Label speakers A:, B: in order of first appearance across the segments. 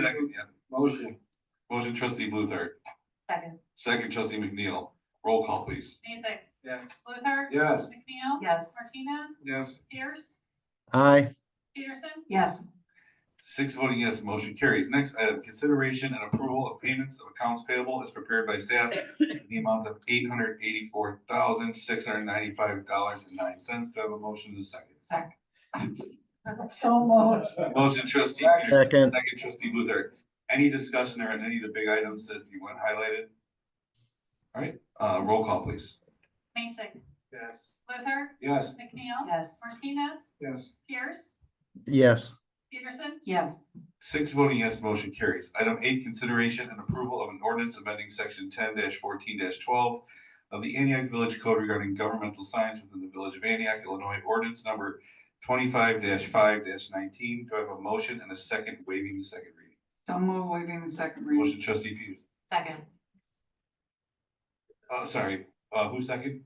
A: Second, yeah.
B: Motion,
A: Motion trustee Luther,
C: Second.
A: second trustee McNeil. Roll call, please.
D: Mason,
B: yes.
D: Luther.
B: Yes.
D: McNeil.
C: Yes.
D: Martinez,
B: Yes.
D: Pierce,
E: aye,
D: Peterson,
C: Yes.
A: Six voting yes, motion carries. Next item, consideration and approval of payments of accounts payable as prepared by staff in the amount of eight hundred eighty-four thousand, six hundred ninety-five dollars and nine cents. Do I have a motion to second?
C: Second. So moved.
A: Motion trustee Peterson,
E: second,
A: second trustee Luther. Any discussion or any of the big items that you want highlighted? All right, uh, roll call, please.
D: Mason,
B: Yes.
D: Luther,
B: Yes.
D: McNeil.
C: Yes.
D: Martinez,
B: Yes.
D: Pierce,
E: yes,
D: Peterson,
C: Yes.
A: Six voting yes, motion carries. Item eight, consideration and approval of an ordinance amending section ten fourteen twelve of the Antioch Village Code regarding governmental signs within the Village of Antioch, Illinois, ordinance number twenty-five five nineteen. Do I have a motion and a second waiving the second reading?
C: So moved, waiving the second reading.
A: Motion trustee Peters,
C: Second.
A: uh, sorry, uh, who second?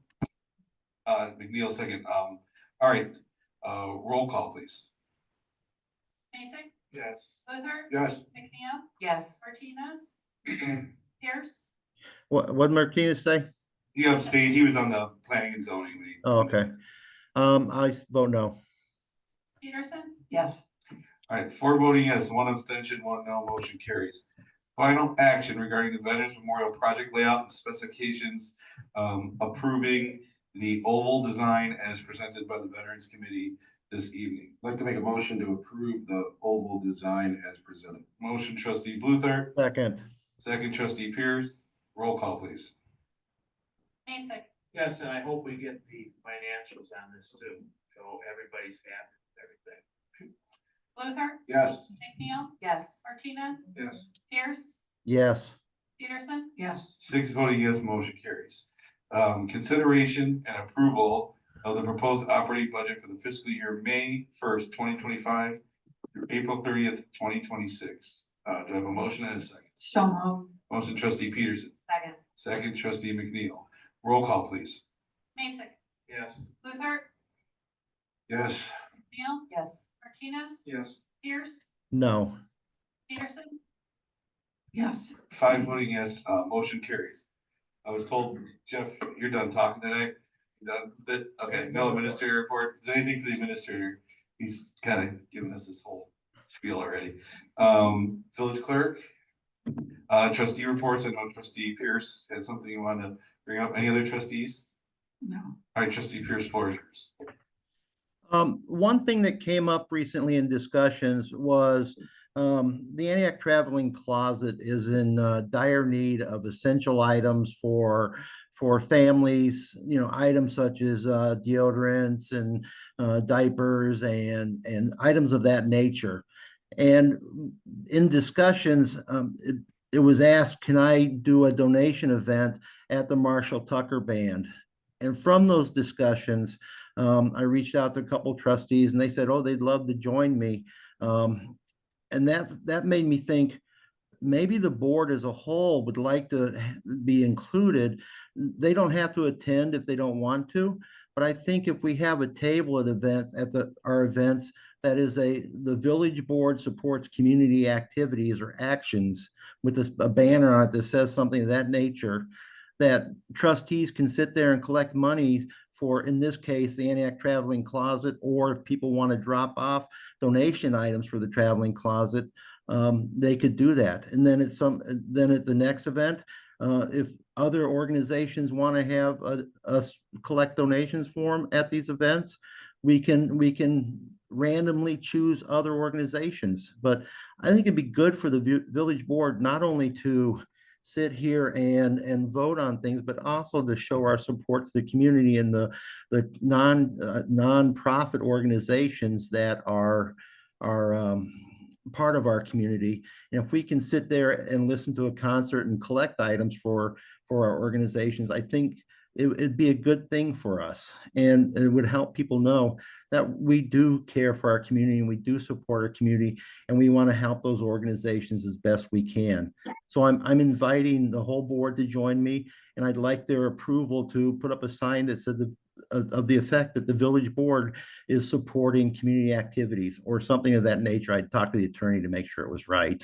A: Uh, McNeil second. Um, all right, uh, roll call, please.
D: Mason,
B: Yes.
D: Luther.
B: Yes.
D: McNeil,
C: Yes.
D: Martinez, Pierce,
E: what, what Martinez say?
A: He abstained. He was on the planning and zoning. when he-
E: Oh, okay, um, I s- vote no,
D: Peterson,
C: Yes.
A: Alright, four voting yes, one abstention, one no, motion carries. Final action regarding the Veterans Memorial Project layout and specifications, um, approving the oval design as presented by the Veterans Committee this evening.
B: I'd like to make a motion to approve the oval design as presented.
A: Motion trustee Bluthart,
E: second,
A: second trustee Pierce, roll call please.
D: Mason,
F: Yes, and I hope we get the financials on this too, so everybody's happy with everything.
D: Luther,
B: Yes.
D: McNeil,
C: Yes.
D: Martinez,
B: Yes.
D: Pierce,
E: yes,
D: Peterson,
C: Yes.
A: Six voting yes, motion carries. Um, consideration and approval of the proposed operating budget for the fiscal year May first, twenty twenty-five through April thirtieth, twenty twenty-six. Uh, do I have a motion and a second?
C: So moved.
A: Motion trustee Peterson,
C: Second.
A: second trustee McNeil. Roll call, please.
D: Mason,
F: Yes,
D: Luther,
A: Yes.
D: McNeil,
C: Yes.
D: Martinez,
B: Yes.
D: Pierce,
E: no,
D: Peterson,
C: Yes.
A: Five voting yes, uh, motion carries. I was told, Jeff, you're done talking tonight. Done, that, okay, no administrator report, is there anything for the administrator? He's kind of given us this whole spiel already. Um, village clerk? Uh, trustee reports, I know trustee Pierce had something you wanted to bring up, any other trustees?
C: No.
A: All right, trustee Pierce, floor is yours.
E: Um, one thing that came up recently in discussions was um, the Antioch Traveling Closet is in uh, dire need of essential items for for families, you know, items such as uh, deodorants and uh, diapers and and items of that nature. And in discussions, um, it, it was asked, can I do a donation event at the Marshall Tucker Band? And from those discussions, um, I reached out to a couple trustees and they said, oh, they'd love to join me. Um, and that, that made me think, maybe the board as a whole would like to ha- be included. They don't have to attend if they don't want to, but I think if we have a table at events, at the, our events, that is a, the village board supports community activities or actions with this, a banner on it that says something of that nature, that trustees can sit there and collect money for, in this case, the Antioch Traveling Closet, or if people want to drop off donation items for the Traveling Closet, um, they could do that. And then at some, then at the next event, uh, if other organizations want to have uh, us collect donations for them at these events, we can, we can randomly choose other organizations. But I think it'd be good for the vi- village board not only to sit here and, and vote on things, but also to show our support to the community and the, the non, uh, nonprofit organizations that are, are, um, part of our community. And if we can sit there and listen to a concert and collect items for, for our organizations, I think it, it'd be a good thing for us. And it would help people know that we do care for our community and we do support our community and we want to help those organizations as best we can. So I'm, I'm inviting the whole board to join me, and I'd like their approval to put up a sign that said the, of, of the effect that the village board is supporting community activities or something of that nature. I talked to the attorney to make sure it was right.